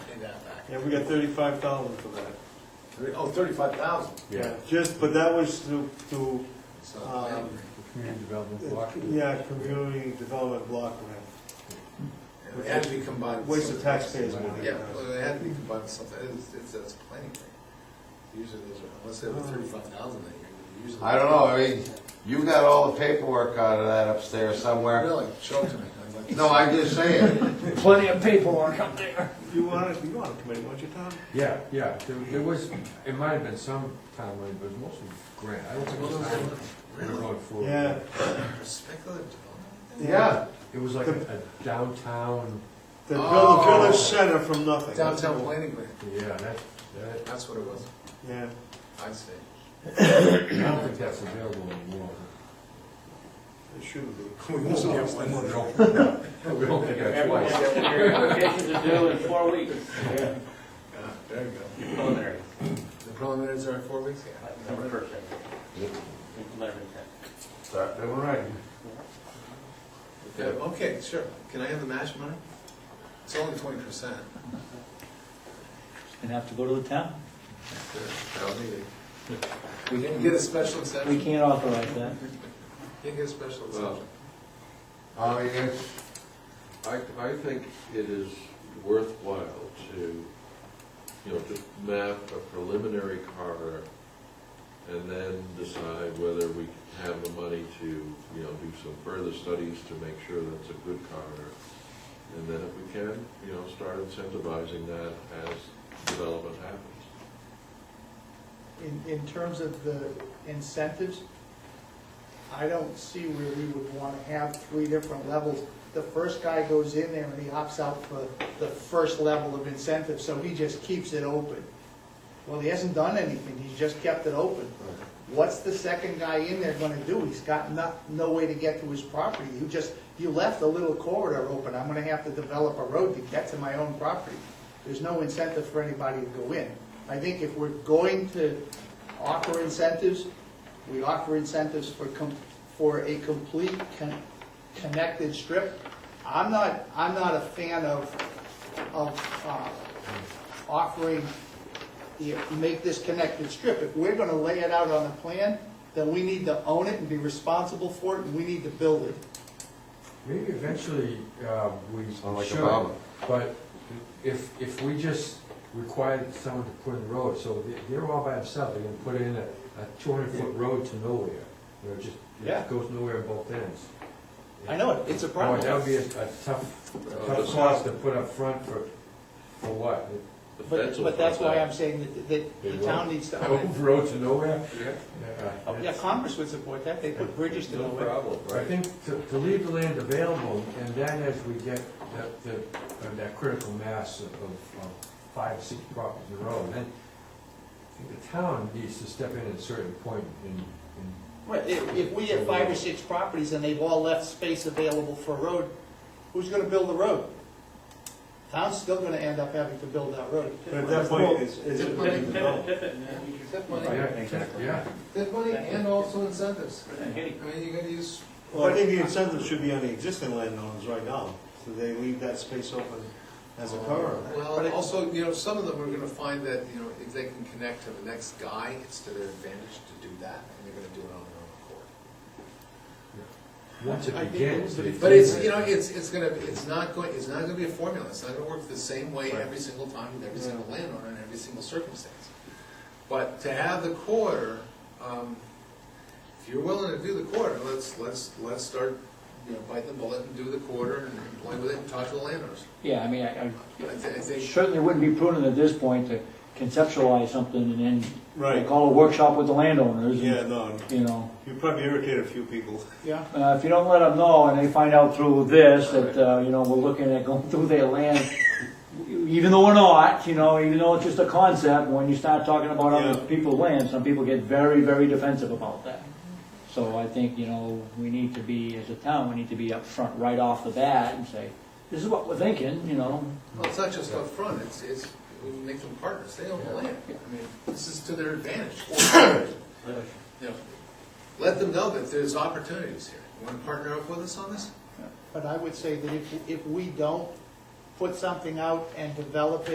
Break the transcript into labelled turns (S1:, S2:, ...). S1: that back.
S2: Yeah, we got thirty-five thousand for that.
S1: Thirty- Oh, thirty-five thousand.
S3: Yeah.
S2: Just, but that was to, to,
S1: It's not a plan.
S2: Um,
S3: Community development block.
S2: yeah, community development block grant,
S1: It had to be combined. with
S2: waste of
S1: something else.
S2: taxpayers' money.
S1: Yeah, well, it had to be combined with something, it's, it's, that's planning. grant. Usually those are, unless they have thirty-five thousand that year, usually.
S4: I don't know, I mean, you got all the paperwork out of that upstairs somewhere.
S1: Really, show it to me. I'd like to
S4: No,
S1: see
S4: I'm just saying,
S5: Plenty of paperwork up there.
S2: You want it, you want a committee, don't you, Tom?
S3: Yeah, yeah, there, there was, it might have been some town money, but it was mostly grant, I don't think it was town. money. We were going for-
S2: Yeah.
S1: it. Speculative development?
S4: yeah,
S3: It was like a downtown,
S2: The
S1: Oh.
S2: village, village center from nothing.
S1: Downtown planning grant,
S3: yeah, that, that,
S1: that's what it was,
S2: Yeah,
S1: I see.
S3: I don't think that's available anymore.
S2: it shouldn't be.
S1: We won't get one.
S3: We don't think that twice.
S5: Applications are due in four weeks.
S1: Yeah, Ah, There you go.
S5: Preliminary.
S1: The preliminaries are in four weeks?
S5: Number first. Preliminary.
S4: Start doing right.
S1: Yeah, okay, sure. Can I have the match money? It's only twenty percent.
S6: And have to go to the town?
S1: We can get a special exception.
S6: We can't authorize that.
S1: You can get a special exception.
S4: I mean, it's,
S7: I, I think it is worthwhile to, you know, just map a preliminary corridor and then decide whether we have the money to, you know, do some further studies to make sure that's a good corridor. And then if we can, you know, start incentivizing that as development happens.
S8: In, in terms of the incentives, I don't see where we would want to have three different levels. The first guy goes in there and he opts out for the first level of incentive, so he just keeps it open. Well, he hasn't done anything, he's just kept it open. What's the second guy in there gonna do? He's got no, no way to get to his property. You just, you left a little corridor open, I'm gonna have to develop a road to get to my own property. There's no incentive for anybody to go in. I think if we're going to offer incentives, we offer incentives for, com- for a complete con- connected strip. I'm not, I'm not a fan of, of, uh, offering you make this connected strip. If we're gonna lay it out on the plan, then we need to own it and be responsible for it, and we need to build it.
S3: Maybe eventually, uh, we
S4: Sound like a
S3: should,
S4: problem.
S3: but if, if we just required someone to put in the road, so they- they're all by themselves, they're gonna put in a, a two hundred foot road to nowhere, you know, just,
S8: Yeah.
S3: it goes nowhere on both ends.
S8: I know it, it's a
S3: Boy, that would
S8: problem.
S3: be a a tough, a tough cost to put up front for, for what?
S7: The fence
S8: But,
S7: will
S8: but that's
S7: find
S8: why
S7: out.
S8: I'm saying that, that the town needs to own
S3: Open
S8: it.
S3: road to nowhere?
S8: Oh,
S3: Yeah.
S8: Yeah, Congress would support that, they put bridges to
S7: No
S8: nowhere.
S7: problem,
S3: I
S7: right?
S3: think to, to leave the land available, and then as we get that, that, uh, that critical mass of, of of five, six properties in a row, then I think the town needs to step in at a certain point and, and
S8: Right, if, if we have five or six properties and they've all left space available for a road, who's gonna build the road? Town's still gonna end up having to build that road.
S2: But at that point, it's, it's.
S1: Well,
S2: it's developed.
S1: That
S3: Yeah,
S1: money,
S6: Exactly.
S3: Yeah,
S1: that money and also incentives. I mean, you gotta use,
S2: Well, I think the incentive should be on the existing landowners right now, so they leave that space open as a corridor.
S8: But
S1: well,
S8: it-
S1: also, you know, some of them are gonna find that, you know, if they can connect to the next guy, it's to their advantage to do that, and they're gonna do it on their own accord.
S3: once
S8: I
S3: it
S8: think
S3: begins.
S8: it was-
S3: it-
S1: But it's, you know, it's, it's gonna, it's not going, it's not gonna be a formula, it's not gonna work the same way every single time with every single landowner in every single circumstance. But to have the corridor, um, if you're willing to do the corridor, let's, let's, let's start, you know, bite the bullet and do the corridor and play with it and talk to the landowners.
S6: Yeah, I mean, I,
S1: I thi- I
S6: I
S1: think,
S6: certainly wouldn't be prudent at this point to conceptualize something and then
S2: Right.
S6: call a workshop with the landowners. and,
S2: Yeah, no,
S6: You know,
S2: you probably irritate a few people.
S8: Yeah.
S6: uh, if you don't let them know and they find out through this that, uh, you know, we're looking at going through their land, even though we're not, you know, even though it's just a concept, when you start talking about other
S2: Yeah.
S6: people's land, some people get very, very defensive about that. So I think, you know, we need to be, as a town, we need to be upfront right off the bat and say, this is what we're thinking, you know,
S1: well, it's not just upfront, it's, it's, we make them partners, they own the land, I mean, this is to their advantage. You know, Let them know that there's opportunities here, you wanna partner up with us on this?
S8: But I would say that if, if we don't put something out and develop it.